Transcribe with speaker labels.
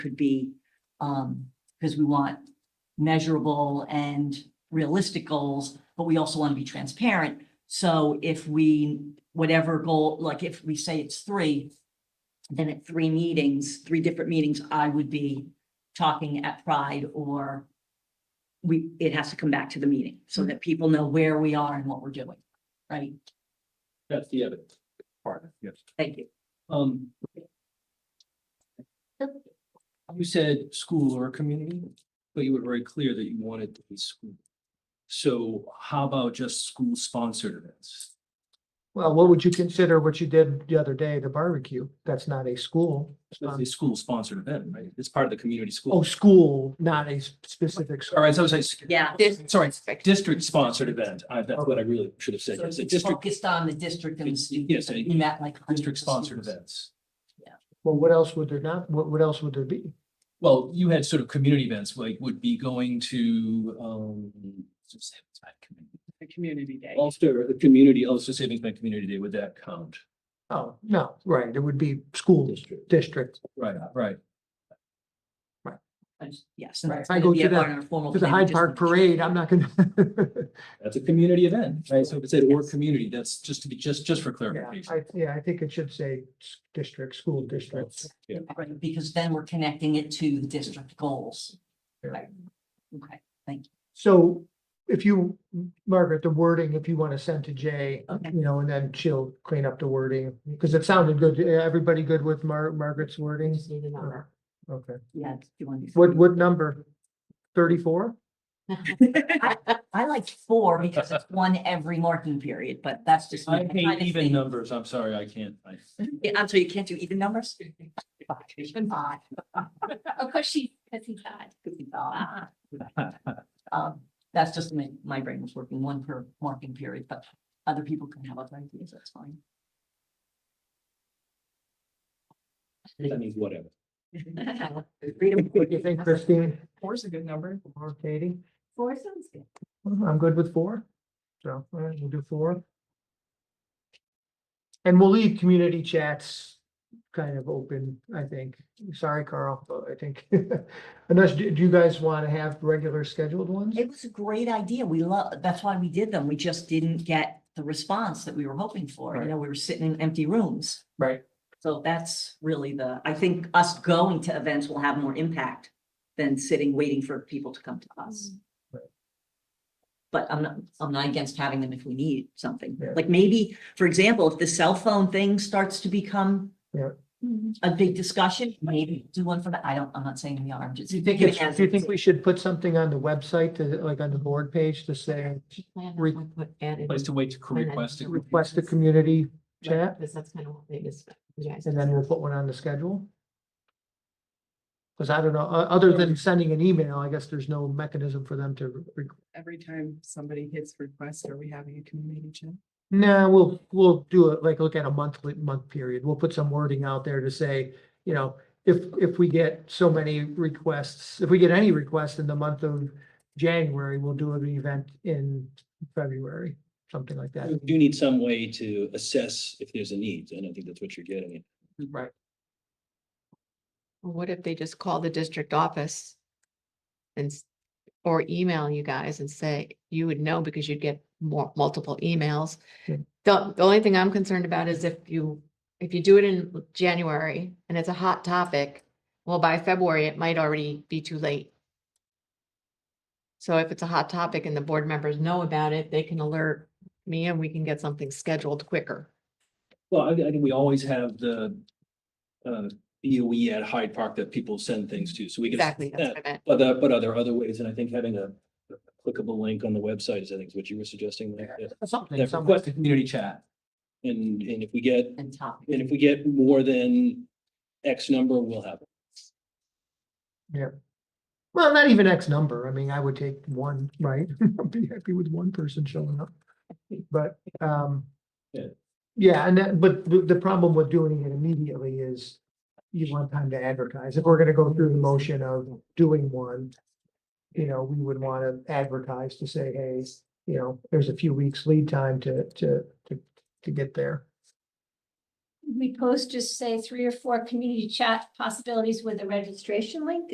Speaker 1: could be, um, because we want measurable and realistic goals, but we also want to be transparent. So if we, whatever goal, like if we say it's three, then at three meetings, three different meetings, I would be talking at Pride or we, it has to come back to the meeting so that people know where we are and what we're doing, right?
Speaker 2: That's the evidence. Part, yes.
Speaker 1: Thank you.
Speaker 2: Um. You said school or community, but you were very clear that you wanted to be school. So how about just school sponsored events?
Speaker 3: Well, what would you consider what you did the other day, the barbecue? That's not a school.
Speaker 2: That's a school sponsored event, right? It's part of the community school.
Speaker 3: Oh, school, not a specific.
Speaker 2: All right, so I was like,
Speaker 1: Yeah.
Speaker 2: sorry, district sponsored event. I, that's what I really should have said.
Speaker 1: So
Speaker 2: It's a
Speaker 1: it's
Speaker 2: district,
Speaker 1: focused on the district and the
Speaker 2: It's-
Speaker 1: students.
Speaker 2: yes, a
Speaker 1: We met like. hundreds of
Speaker 2: district sponsored
Speaker 1: students.
Speaker 2: events.
Speaker 3: Well, what else would there not, what, what else would there be?
Speaker 2: Well, you had sort of community events, like would be going to, um. just say it's bad community.
Speaker 4: the community day.
Speaker 2: Ulster, the community, Ulster Savings Bank Community Day, would that count?
Speaker 3: Oh, no, right, it would be school
Speaker 2: District.
Speaker 3: district.
Speaker 2: Right, right.
Speaker 1: Yes. and
Speaker 3: Right.
Speaker 1: that's
Speaker 3: I
Speaker 1: gonna
Speaker 3: go
Speaker 1: be
Speaker 3: to
Speaker 1: a part
Speaker 3: the-
Speaker 1: of our formal
Speaker 3: To the
Speaker 1: plan,
Speaker 3: Hyde
Speaker 1: just
Speaker 3: Park
Speaker 1: make sure.
Speaker 3: Parade, I'm not gonna.
Speaker 2: That's a community event, right? So if it said or community, that's just to be, just, just for
Speaker 3: Yeah,
Speaker 2: clarification.
Speaker 3: I, yeah, I think it should say s- district, school district.
Speaker 2: Yeah.
Speaker 1: Right, because then we're connecting it to the district goals.
Speaker 3: Yeah.
Speaker 1: Right. Okay,
Speaker 3: So if you, Margaret, the wording, if you want to send to Jay,
Speaker 1: Okay.
Speaker 3: you know, and then she'll clean up the wording, because it sounded good. Everybody good with Mar- Margaret's wording?
Speaker 1: just need a number.
Speaker 3: Okay,
Speaker 1: yeah. do you want to-
Speaker 3: what, what number? Thirty-four?
Speaker 1: I like four because it's one every marking period, but that's just. me.
Speaker 2: I hate even numbers. I'm sorry, I can't. I-
Speaker 1: Yeah, I'm sorry, you can't do even numbers? Five. Five.
Speaker 4: Of course, she, because he's odd.
Speaker 1: Ah. Um, that's just my, my brain was working one per marking period, but other people can have other ideas, that's fine.
Speaker 2: That means whatever.
Speaker 3: What do you think, Christine?
Speaker 4: Four's a good number.
Speaker 3: Or Katie?
Speaker 1: Four sounds good.
Speaker 3: I'm good with four. So, all right, we'll do four. And we'll leave community chats kind of open, I think. Sorry, Carl, but I think. Unless, do do you guys want to have regular scheduled ones?
Speaker 1: It was a great idea. We love, that's why we did them. We just didn't get the response that we were hoping for. You
Speaker 3: Right.
Speaker 1: know, we were sitting in empty rooms.
Speaker 3: Right.
Speaker 1: So that's really the, I think us going to events will have more impact than sitting, waiting for people to come to us.
Speaker 3: Right.
Speaker 1: But I'm not, I'm not against having them if we need something.
Speaker 3: Yeah.
Speaker 1: Like maybe, for example, if the cell phone thing starts to become
Speaker 3: Yeah.
Speaker 1: a big discussion, maybe do one for that. I don't, I'm not saying we are, I'm just.
Speaker 3: Do you think,
Speaker 1: giving
Speaker 3: it's-
Speaker 1: as
Speaker 3: do you
Speaker 1: an
Speaker 3: think we should put something on the website to, like on the board page to say, Re-
Speaker 2: Place to wait to request. it.
Speaker 3: request a community chat?
Speaker 4: Because that's kind of what they just, yeah.
Speaker 3: And then we'll put one on the schedule? Because I don't know, o- other than sending an email, I guess there's no mechanism for them to re-
Speaker 4: Every time somebody hits request, are we having a community chat?
Speaker 3: No, we'll, we'll do it, like, look at a monthly, month period. We'll put some wording out there to say, you know, if, if we get so many requests, if we get any requests in the month of January, we'll do an event in February, something like that.
Speaker 5: You do need some way to assess if there's a need, and I think that's what you're getting at.
Speaker 3: Right.
Speaker 6: Well, What if they just call the district office? And, s- or email you guys and say, you would know because you'd get more, multiple emails.
Speaker 3: Yeah.
Speaker 6: The, the only thing I'm concerned about is if you, if you do it in January and it's a hot topic, well, by February, it might already be too late. So if it's a hot topic and the board members know about it, they can alert me and we can get something scheduled quicker.
Speaker 2: Well, I, I think we always have the uh,
Speaker 5: E
Speaker 2: BOE at Hyde Park that people send things to, so we can.
Speaker 6: Exactly, that's
Speaker 2: that.
Speaker 6: what I meant.
Speaker 5: But there, but are there other ways? And I think having a clickable link on the website is, I think, is what you were suggesting. like, that-
Speaker 3: Something,
Speaker 2: That
Speaker 3: something.
Speaker 2: request a community chat.
Speaker 5: And, and if we get,
Speaker 1: And topic.
Speaker 5: and if we get more than X number, we'll have. it.
Speaker 3: Well, not even X number. I mean, I would take one, right? I'd be happy with one person showing up. But, um.
Speaker 2: Yeah.
Speaker 3: Yeah, and that, but the, the problem with doing it immediately is you want time to advertise. If we're gonna go through the motion of doing one. You know, we would wanna advertise to say, hey, you know, there's a few weeks lead time to, to, to, to get there.
Speaker 7: we post just say three or four community chat possibilities with a registration link?